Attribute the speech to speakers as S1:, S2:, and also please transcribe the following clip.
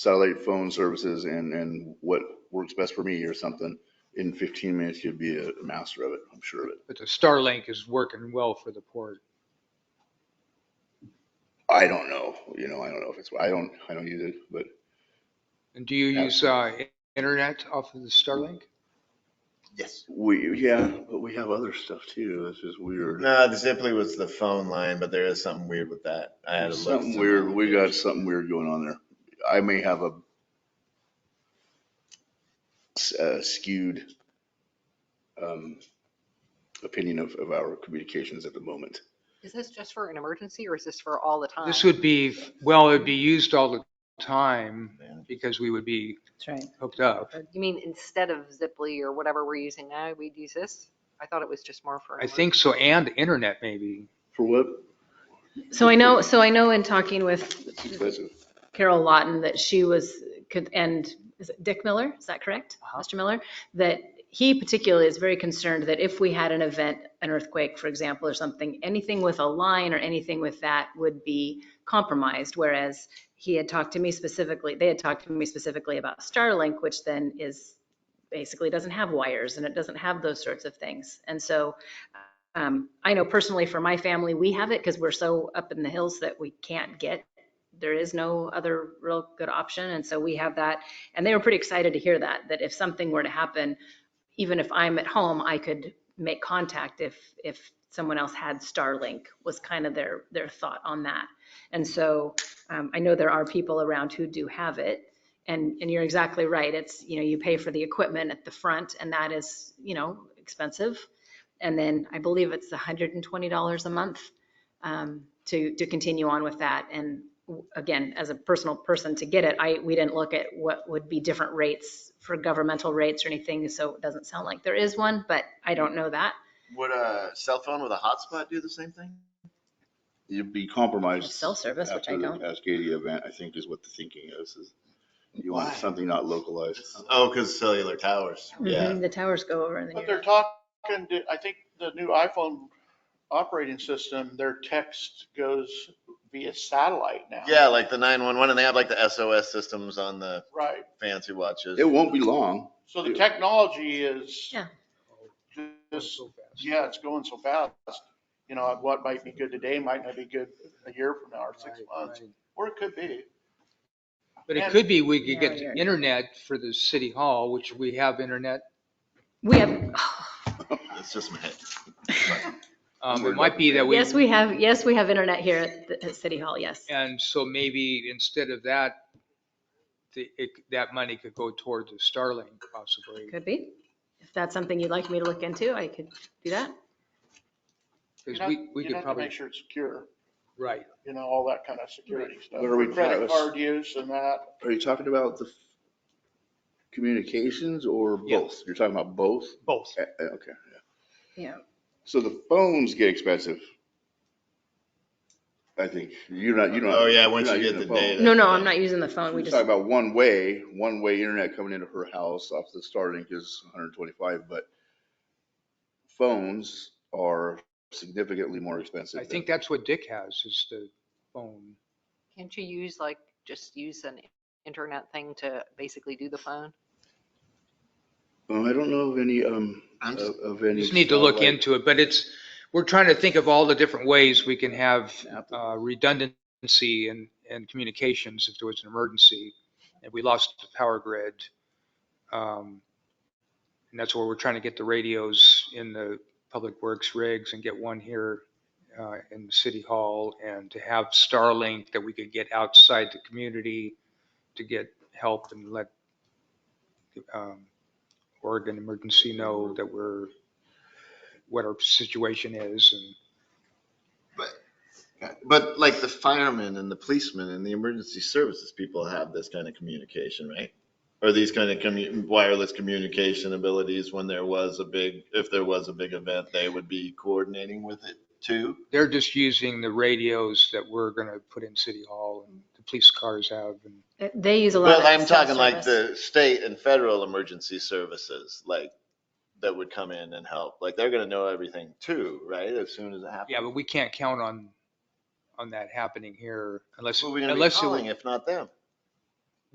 S1: satellite phone services and, and what works best for me or something, in 15 minutes you'd be a master of it, I'm sure of it.
S2: But the Starlink is working well for the port.
S1: I don't know, you know, I don't know if it's, I don't, I don't use it, but
S2: And do you
S1: Yeah.
S2: use uh, internet off of the Starlink?
S3: Yes.
S1: we, yeah, but we have other stuff too, this is weird.
S3: No, the Zipley was the phone line, but there is something weird with that. I had a look.
S1: Something weird, we got something weird going on there. I may have a s- uh, skewed um, opinion of, of our communications at the moment.
S4: Is this just for an emergency or is this for all the
S5: Uh,
S4: time?
S2: This would be, well, it'd be used all the time
S3: Yeah.
S2: because we would be
S6: That's right.
S2: hooked up.
S4: You mean instead of Ziply or whatever we're using now, we'd use this? I thought it was just more for. an
S2: I think so, and internet maybe.
S1: For what?
S6: So I know, so I know in talking with
S1: It's expensive.
S6: Carol Lawton that she was, could and is it Dick Miller? Is that correct? Mr. Miller? That he particularly is very concerned that if we had an event, an earthquake, for example, or something, anything with a line or anything with that would be compromised. Whereas he had talked to me specifically, they had talked to me specifically about Starlink, which then is, basically doesn't have wires and it doesn't have those sorts of things. And so um, I know personally for my family, we have it because we're so up in the hills that we can't get there is no other real good option. And so we have that. And they were pretty excited to hear that, that if something were to happen, even if I'm at home, I could make contact if, if someone else had Starlink was kind of their, their thought on that. And so um, I know there are people around who do have it. And, and you're exactly right. It's, you know, you pay for the equipment at the front and that is, you know, expensive. And then I believe it's $120 a month um, to, to continue on with that. And w- again, as a personal person to get it, I, we didn't look at what would be different rates for governmental rates or anything, so it doesn't sound like there is one, but I don't know that.
S3: Would a cell phone with a hotspot do the same thing?
S1: You'd be compromised.
S6: Cell service, which I
S1: after the
S6: don't.
S1: Cascadia event, I think is what the thinking is, is you
S3: Why?
S1: want something not localized.
S3: Oh, because cellular towers.
S6: Mm-hmm.
S3: Yeah.
S6: The towers go over and then
S5: But they're
S6: you're,
S5: talking, to- I think the new iPhone operating system, their text goes via satellite now.
S3: Yeah, like the 911 and they have like the SOS systems on the
S5: Right.
S3: fancy watches.
S1: It won't be long.
S5: So the technology is.
S6: Yeah.
S5: Just, yeah, it's going so fast. You know, what might be good today might not be good a year from now or six months, or it could be.
S2: But it could be, we could get
S6: Yeah,
S2: the
S6: yeah.
S2: internet for the city hall, which we have internet.
S6: we have,
S3: It's just my head.
S2: Um, It might be that we.
S6: oh, yes, we have, yes, we have internet here at the at City Hall, yes.
S2: And so maybe instead of that, the, it, that money could go toward the Starlink possibly.
S6: Could be. If that's something you'd like me to look into, I could do that.
S5: You'd
S2: Because
S5: have-
S2: we, we
S5: you'd
S2: could
S5: have to
S2: probably,
S5: Make sure it's secure,
S2: right.
S5: you know, all that kind of security stuff.
S1: What are we-
S5: Credit card use and that.
S1: Are you talking about the communications or
S2: Yeah.
S1: both? You're talking about both?
S2: Both.
S1: Eh, eh, Okay.
S6: Yeah.
S1: So the phones get expensive. I think you're not, you don't.
S3: Oh, yeah, once
S1: you're not
S3: you get
S1: using
S3: the
S1: a phone.
S3: data.
S6: No, no, I'm not using the phone. We
S1: We're
S6: just,
S1: talking about one way, one way internet coming into her house off the Starlink is 125, but phones are significantly more expensive.
S2: I
S1: than-
S2: think that's what Dick has is the phone.
S4: Can't you use like, just use an internet thing to basically do the phone?
S1: Well, I don't know of any, um,
S3: I'm
S1: of
S3: just-
S1: of any.
S2: Just need to look
S1: satellite-
S2: into it, but it's, we're trying to think of all the different ways we can have uh, redundancy in, in communications if there was an emergency and we lost the power grid. Um, And that's where we're trying to get the radios in the public works rigs and get one here uh, in the city hall and to have Starlink that we could get outside the community to get help and let um, Oregon emergency know that we're what our situation is and
S3: But like the firemen and the policemen and the emergency services people have this kind of communication, right? Or these kind of commu- wireless communication abilities when there was a big, if there was a big event, they would be coordinating with it too.
S2: they're just using the radios that we're gonna put in City Hall and the police cars have and
S6: they use a lot of.
S3: Well, I'm
S6: cell
S3: talking like
S6: service.
S3: the state and federal emergency services, like that would come in and help. Like they're gonna know everything too, right? As soon as it happens.
S2: yeah, but we can't count on on that happening here unless
S3: Who are we gonna be
S2: unless it
S3: calling
S2: was
S3: if not them?